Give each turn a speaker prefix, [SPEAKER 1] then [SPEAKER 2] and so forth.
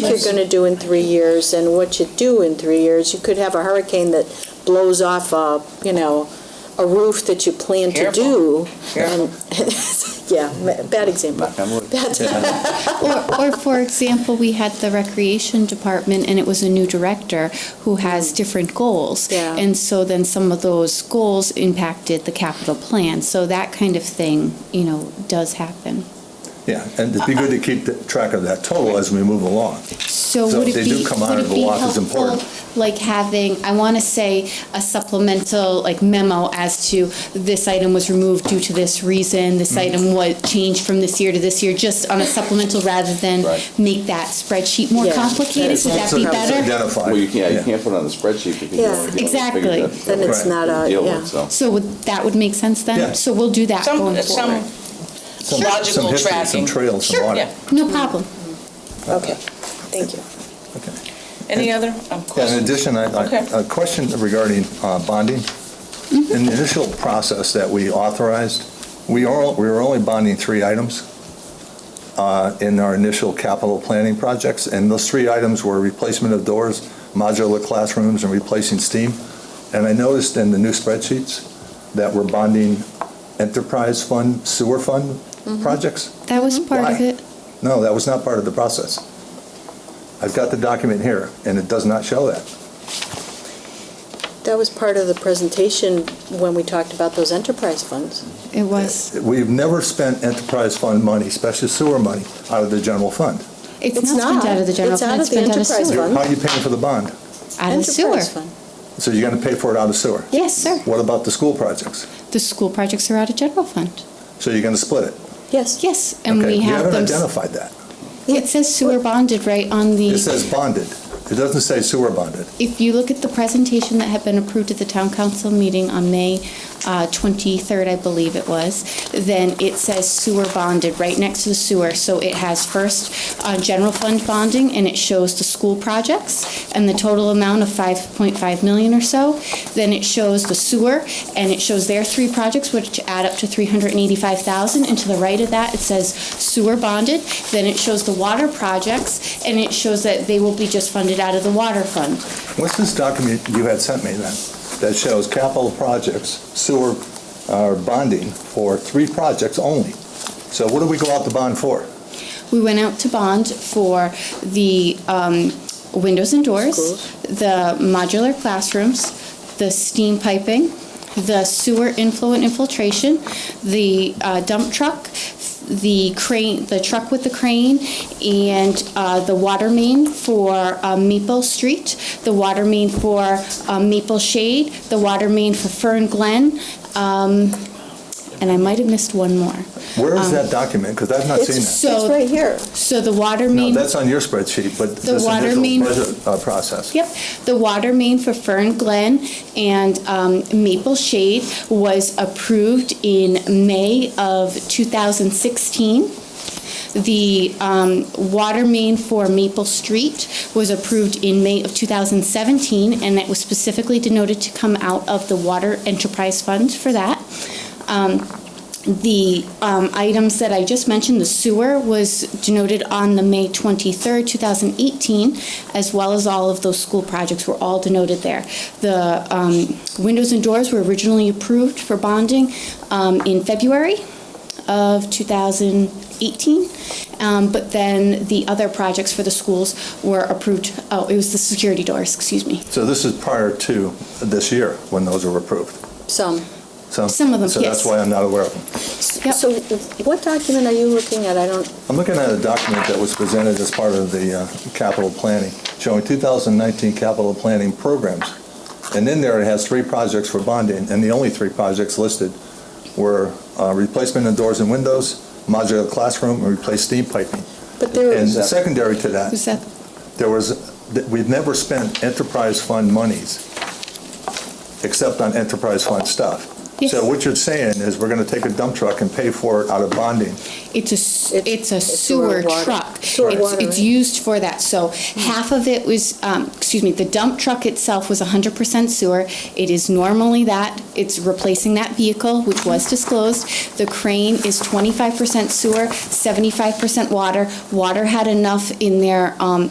[SPEAKER 1] you're going to do in three years and what you do in three years. You could have a hurricane that blows off a, you know, a roof that you plan to do. and- Yeah, ma- bad example.
[SPEAKER 2] Knock on wood.
[SPEAKER 1] Bad-
[SPEAKER 3] Or, or for example, we had the recreation department and it was a new director who has different goals.
[SPEAKER 1] Yeah.
[SPEAKER 3] And so then some of those goals impacted the capital plan. So that kind of thing, you know, does happen.
[SPEAKER 4] Yeah, and
[SPEAKER 5] Uh,
[SPEAKER 4] it'd be good to keep the- track of that total as we move along.
[SPEAKER 3] So
[SPEAKER 4] So
[SPEAKER 3] would it
[SPEAKER 4] they
[SPEAKER 3] be,
[SPEAKER 4] do come out
[SPEAKER 3] would
[SPEAKER 4] of
[SPEAKER 3] it
[SPEAKER 4] the
[SPEAKER 3] be
[SPEAKER 4] lot is
[SPEAKER 3] helpful,
[SPEAKER 4] important.
[SPEAKER 3] like having, I want to say, a supplemental, like memo as to this item was removed due to this reason, this
[SPEAKER 4] Mm-hmm.
[SPEAKER 3] item was changed from this year to this year, just on a supplemental rather than
[SPEAKER 6] Right.
[SPEAKER 3] make that spreadsheet more
[SPEAKER 1] Yeah.
[SPEAKER 3] complicated? Would that
[SPEAKER 4] So
[SPEAKER 3] be
[SPEAKER 4] it's
[SPEAKER 3] better?
[SPEAKER 4] Identified.
[SPEAKER 6] Well, you can't, you
[SPEAKER 4] Yeah.
[SPEAKER 6] can't put it on the spreadsheet because you
[SPEAKER 1] Yeah.
[SPEAKER 6] don't you don't
[SPEAKER 3] Exactly.
[SPEAKER 6] figure that.
[SPEAKER 1] Then it's
[SPEAKER 4] Right.
[SPEAKER 1] not a,
[SPEAKER 6] Deal
[SPEAKER 1] yeah.
[SPEAKER 6] with, so.
[SPEAKER 3] So would, that would make sense
[SPEAKER 4] Yeah.
[SPEAKER 3] then? So we'll do that
[SPEAKER 5] Some,
[SPEAKER 3] going
[SPEAKER 5] some,
[SPEAKER 3] forward.
[SPEAKER 4] Some-
[SPEAKER 5] logical
[SPEAKER 4] some history, Some
[SPEAKER 5] tracking.
[SPEAKER 4] trails, some
[SPEAKER 5] sure,
[SPEAKER 4] water.
[SPEAKER 5] yeah.
[SPEAKER 3] No problem.
[SPEAKER 1] Okay, thank you.
[SPEAKER 4] Okay.
[SPEAKER 5] Any other um,
[SPEAKER 4] Yeah, In
[SPEAKER 5] questions?
[SPEAKER 4] addition, I-
[SPEAKER 5] Okay. Mm-hmm.
[SPEAKER 4] I- a question regarding uh, bonding. In the initial process that we authorized, we are, we were only bonding three items uh, in our initial capital planning projects, and those three items were replacement of doors, modular classrooms, and replacing steam. And I noticed in the new spreadsheets that we're bonding enterprise fund, sewer fund
[SPEAKER 5] Mm-hmm.
[SPEAKER 4] projects.
[SPEAKER 3] That was part of
[SPEAKER 4] Why?
[SPEAKER 3] it.
[SPEAKER 4] No, that was not part of the process. I've got the document here, and it does not show that.
[SPEAKER 1] That was part of the presentation when we talked about those enterprise funds.
[SPEAKER 3] It was.
[SPEAKER 4] We've never spent enterprise fund money, especially sewer money, out of the general fund.
[SPEAKER 3] It's
[SPEAKER 1] It's
[SPEAKER 3] not spent
[SPEAKER 1] not.
[SPEAKER 3] out of the general
[SPEAKER 1] It's
[SPEAKER 3] fund,
[SPEAKER 1] out
[SPEAKER 3] it's
[SPEAKER 1] of the
[SPEAKER 3] spent out of
[SPEAKER 1] enterprise
[SPEAKER 3] sewer.
[SPEAKER 1] fund.
[SPEAKER 4] How are you paying for the bond?
[SPEAKER 3] Out of sewer.
[SPEAKER 1] Enterprise fund.
[SPEAKER 4] So you're going to pay for it out of sewer?
[SPEAKER 3] Yes, sir.
[SPEAKER 4] What about the school projects?
[SPEAKER 3] The school projects are out of general fund.
[SPEAKER 4] So you're going to split it?
[SPEAKER 1] Yes.
[SPEAKER 3] Yes, and
[SPEAKER 4] Okay,
[SPEAKER 3] we have
[SPEAKER 4] You
[SPEAKER 3] them.
[SPEAKER 4] haven't identified that.
[SPEAKER 3] It says sewer bonded right on
[SPEAKER 4] It
[SPEAKER 3] the,
[SPEAKER 4] says bonded. It doesn't say sewer bonded.
[SPEAKER 3] if you look at the presentation that had been approved at the town council meeting on May uh, 23rd, I believe it was, then it says sewer bonded right next to the sewer. So it has first uh, general fund bonding, and it shows the school projects and the total amount of 5.5 million or so. Then it shows the sewer, and it shows their three projects, which add up to 385,000. And to the right of that, it says sewer bonded. Then it shows the water projects, and it shows that they will be just funded out of the water fund.
[SPEAKER 4] What's this document you had sent me then that shows capital projects, sewer uh, bonding for three projects only? So what do we go out to bond for?
[SPEAKER 3] We went out to bond for the um, windows and doors,
[SPEAKER 1] Schools.
[SPEAKER 3] the modular classrooms, the steam piping, the sewer inflow and infiltration, the uh, dump truck, the crane, the truck with the crane, and uh, the water main for uh, Maple Street, the water main for uh, Maple Shade, the water main for Fern Glen, um, and I might have missed one more.
[SPEAKER 4] Where
[SPEAKER 3] Um,
[SPEAKER 4] is that document? Because I've not seen that.
[SPEAKER 1] It's, it's
[SPEAKER 3] So-
[SPEAKER 1] right here.
[SPEAKER 3] So the water
[SPEAKER 4] No,
[SPEAKER 3] main.
[SPEAKER 4] that's on your spreadsheet, but
[SPEAKER 3] The
[SPEAKER 4] this
[SPEAKER 3] water
[SPEAKER 4] initial
[SPEAKER 3] main-
[SPEAKER 4] budget uh, process.
[SPEAKER 3] Yep, the water main for Fern Glen and um, Maple Shade was approved in May of 2016. The um, water main for Maple Street was approved in May of 2017, and it was specifically denoted to come out of the Water Enterprise Fund for that. Um, the um, items that I just mentioned, the sewer was denoted on the May 23rd, 2018, as well as all of those school projects were all denoted there. The um, windows and doors were originally approved for bonding um, in February of 2018, um, but then the other projects for the schools were approved, oh, it was the security doors, excuse me.
[SPEAKER 4] So this is prior to this year, when those were approved.
[SPEAKER 1] Some.
[SPEAKER 4] So-
[SPEAKER 3] Some of them,
[SPEAKER 4] So that's
[SPEAKER 3] yes.
[SPEAKER 4] why I'm not aware of them.
[SPEAKER 3] Yep.
[SPEAKER 1] So what document are you looking at? I don't,
[SPEAKER 4] I'm looking at a document that was presented as part of the uh, capital planning, showing 2019 capital planning programs. And in there, it has three projects for bonding, and the only three projects listed were uh, replacement of doors and windows, modular classroom, and replace steam piping.
[SPEAKER 1] but there,
[SPEAKER 4] And secondary to that,
[SPEAKER 3] Was that
[SPEAKER 4] there was, that we've never spent enterprise fund monies, except on enterprise fund stuff.
[SPEAKER 3] Yes.
[SPEAKER 4] So what you're saying is, we're gonna take a dump truck and pay for it out of bonding.
[SPEAKER 3] It's a, s-
[SPEAKER 1] It's-
[SPEAKER 3] it's a
[SPEAKER 1] it's sewer
[SPEAKER 3] sewer
[SPEAKER 1] water-
[SPEAKER 3] truck.
[SPEAKER 1] sewer
[SPEAKER 3] It's,
[SPEAKER 1] water,
[SPEAKER 3] it's
[SPEAKER 1] right? Hmm.
[SPEAKER 3] used for that. So half of it was, um, excuse me, the dump truck itself was hundred percent sewer. It is normally that, it's replacing that vehicle, which was disclosed. The crane is twenty-five percent sewer, seventy-five percent water. Water had enough in their, um,